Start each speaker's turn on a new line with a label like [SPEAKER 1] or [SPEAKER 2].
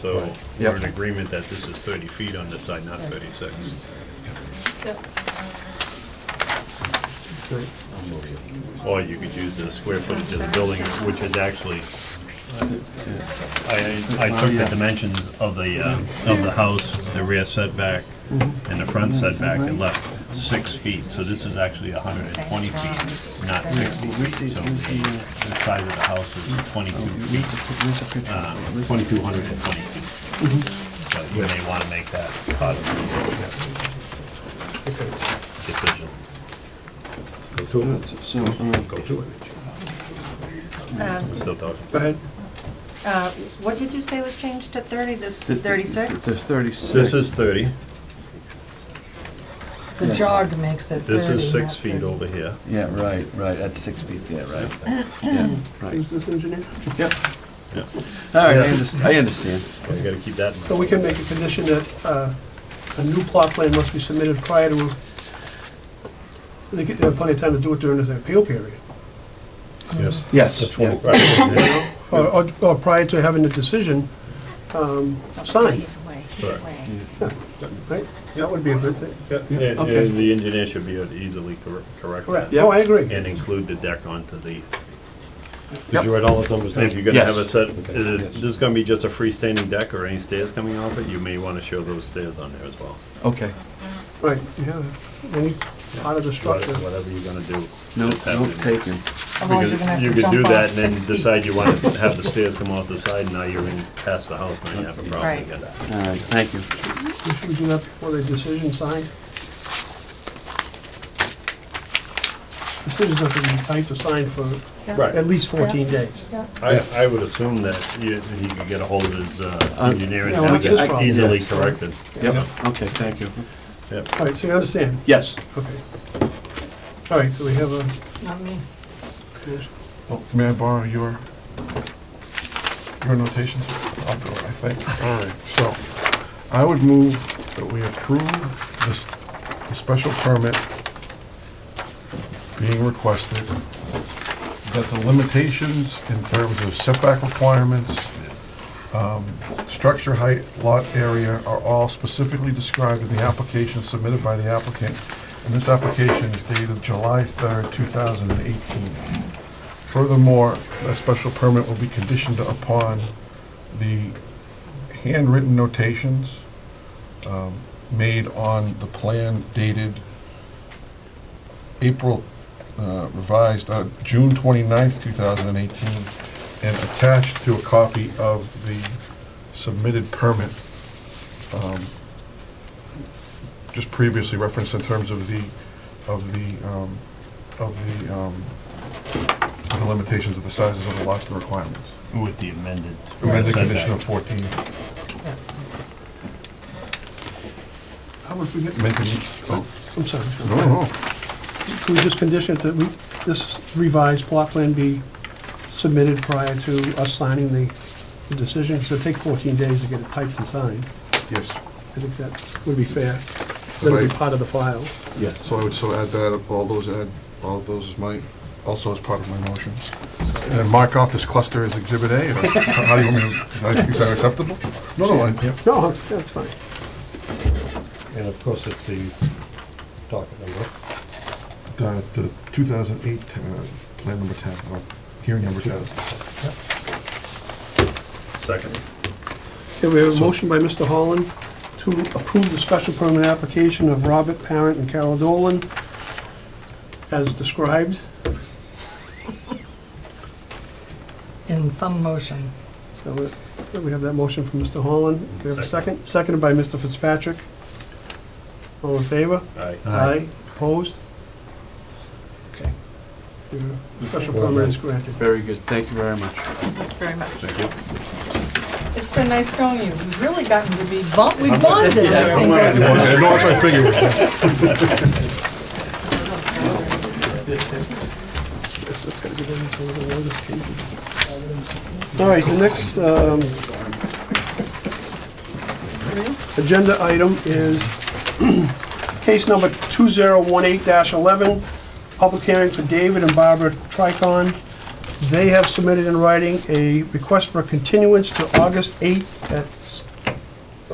[SPEAKER 1] So
[SPEAKER 2] Yep.
[SPEAKER 1] we're in agreement that this is 30 feet on this side, not 36. Or you could use the square footage of the building, which is actually, I, I took the dimensions of the, uh, of the house, the rear setback and the front setback and left six feet. So this is actually 120 feet, not 60 feet. So the the size of the house is 22 feet. uh, 2,220 feet. So you may want to make that part of the decision.
[SPEAKER 2] So,
[SPEAKER 3] Go to it.
[SPEAKER 1] We're still talking.
[SPEAKER 3] Go ahead.
[SPEAKER 4] Uh, What did you say was changed to 30, this
[SPEAKER 2] th-
[SPEAKER 4] 36?
[SPEAKER 2] There's thirty-six.
[SPEAKER 1] This is 30,
[SPEAKER 5] The jog makes it 30.
[SPEAKER 1] this is
[SPEAKER 5] not
[SPEAKER 1] six feet
[SPEAKER 5] 30.
[SPEAKER 1] over here.
[SPEAKER 2] Yeah, right, right, that's six feet there, right? Yeah, right,
[SPEAKER 3] Who's this engineer?
[SPEAKER 2] yep.
[SPEAKER 1] Yeah.
[SPEAKER 2] All right, I understand, I understand.
[SPEAKER 1] So you got to keep that in
[SPEAKER 3] So we
[SPEAKER 1] mind.
[SPEAKER 3] can make a condition that uh, a new plot plan must be submitted prior to, they get- they have plenty of time to do it during the appeal period,
[SPEAKER 1] Yes.
[SPEAKER 2] Yes, yeah,
[SPEAKER 1] Right.
[SPEAKER 3] or, or- or prior to having the decision um, signed,
[SPEAKER 4] He's away, he's
[SPEAKER 1] Correct.
[SPEAKER 4] away.
[SPEAKER 3] right? That would be a good thing.
[SPEAKER 1] Yeah, And
[SPEAKER 2] okay.
[SPEAKER 1] and the engineer should be able to easily cor- correct
[SPEAKER 3] Correct.
[SPEAKER 1] that.
[SPEAKER 3] No, I agree.
[SPEAKER 1] And include the deck onto the,
[SPEAKER 2] Yep.
[SPEAKER 6] Did you write all the numbers
[SPEAKER 1] if
[SPEAKER 6] down?
[SPEAKER 1] you're going to have a
[SPEAKER 2] Yes.
[SPEAKER 1] set,
[SPEAKER 6] Okay,
[SPEAKER 1] is it-
[SPEAKER 6] yes.
[SPEAKER 1] this is going to be just a freestanding deck or any stairs coming off it, you may want to show those stairs on there as well.
[SPEAKER 2] okay.
[SPEAKER 3] Right, yeah, any part of the structure.
[SPEAKER 1] Whatever you're going to do.
[SPEAKER 2] No,
[SPEAKER 1] just have it
[SPEAKER 2] no
[SPEAKER 1] in there.
[SPEAKER 2] taken.
[SPEAKER 5] Otherwise, you're gonna
[SPEAKER 1] Because
[SPEAKER 5] have
[SPEAKER 1] you
[SPEAKER 5] to
[SPEAKER 1] could
[SPEAKER 5] jump
[SPEAKER 1] do
[SPEAKER 5] off
[SPEAKER 1] that and then
[SPEAKER 5] six feet.
[SPEAKER 1] decide you want to have the stairs come off the side, and now you're in past the house, now you have a problem
[SPEAKER 4] Right.
[SPEAKER 1] with that.
[SPEAKER 2] All right, thank you.
[SPEAKER 3] Should we do that before the decision signed? Decisions have to be typed to sign for at least 14 days.
[SPEAKER 1] I, I would assume that you- he could get a hold of his uh,
[SPEAKER 2] Uh,
[SPEAKER 1] engineer and
[SPEAKER 3] yeah,
[SPEAKER 1] have
[SPEAKER 3] which is
[SPEAKER 1] it
[SPEAKER 3] probably-
[SPEAKER 1] easily
[SPEAKER 3] yeah.
[SPEAKER 1] corrected.
[SPEAKER 2] Yep, okay, thank you.
[SPEAKER 1] Yep.
[SPEAKER 3] All right, so you understand?
[SPEAKER 2] Yes.
[SPEAKER 3] Okay. All right, so we have a,
[SPEAKER 5] Not me.
[SPEAKER 6] Well, Oh, May I borrow your, your notations? I'll do it, I think. All right, so I would move that we approve this, the special permit being requested, that the limitations in terms of setback requirements, um, structure height, lot area are all specifically described in the application submitted by the applicant. And this application is dated July 3rd, 2018. Furthermore, a special permit will be conditioned upon the handwritten notations um, made on the plan dated April, uh, revised, uh, June 29th, 2018, and attached to a copy of the submitted permit, um, just previously referenced in terms of the, of the, um, of the um, the limitations of the sizes of the lots and the requirements.
[SPEAKER 1] With the amended.
[SPEAKER 6] Amended
[SPEAKER 1] setback.
[SPEAKER 6] condition of 14.
[SPEAKER 3] how much we get?
[SPEAKER 6] Amended, oh,
[SPEAKER 3] I'm sorry.
[SPEAKER 6] no, no,
[SPEAKER 3] Can we just condition it that we, this revised plot plan be submitted prior to us signing the the decision? So it'll take 14 days to get it typed and signed.
[SPEAKER 6] yes.
[SPEAKER 3] I think that would be fair. That'll be
[SPEAKER 6] Right.
[SPEAKER 3] part of the file.
[SPEAKER 6] Yeah. So I would so add that, all those add, all of those as my, also as part of my motion. And then mark off this cluster as Exhibit A, or how do you want me to, is that acceptable? No, no, I-
[SPEAKER 3] No, uh, that's fine.
[SPEAKER 6] And of course, it's the docket number. The 2008, uh, plan number 10, or hearing number 10.
[SPEAKER 1] Second.
[SPEAKER 3] Okay, we have a motion by Mr. Holland to approve the special permit application of Robert Parent and Carol Dolan as described.
[SPEAKER 5] In some motion.
[SPEAKER 3] So uh, we have that motion from Mr. Holland. We have a second, seconded by Mr. Fitzpatrick. All in favor?
[SPEAKER 1] Aye.
[SPEAKER 3] Aye. Opposed? Okay. Your special permit is granted.
[SPEAKER 2] Very good, thank you very much.
[SPEAKER 5] Thank you very much.
[SPEAKER 1] Thank you.
[SPEAKER 5] It's been nice knowing you. We've really gotten to be, bond- we bonded. I
[SPEAKER 2] I'm
[SPEAKER 5] think,
[SPEAKER 2] gonna-
[SPEAKER 5] over
[SPEAKER 6] No,
[SPEAKER 5] this.
[SPEAKER 6] that's what I figured.
[SPEAKER 3] That's gotta be done, so we're gonna notice cases. All right, the next um, agenda item is case number 2018-11, public hearing for David and Barbara Tricon They have submitted in writing a request for a continuance to August 8th at s-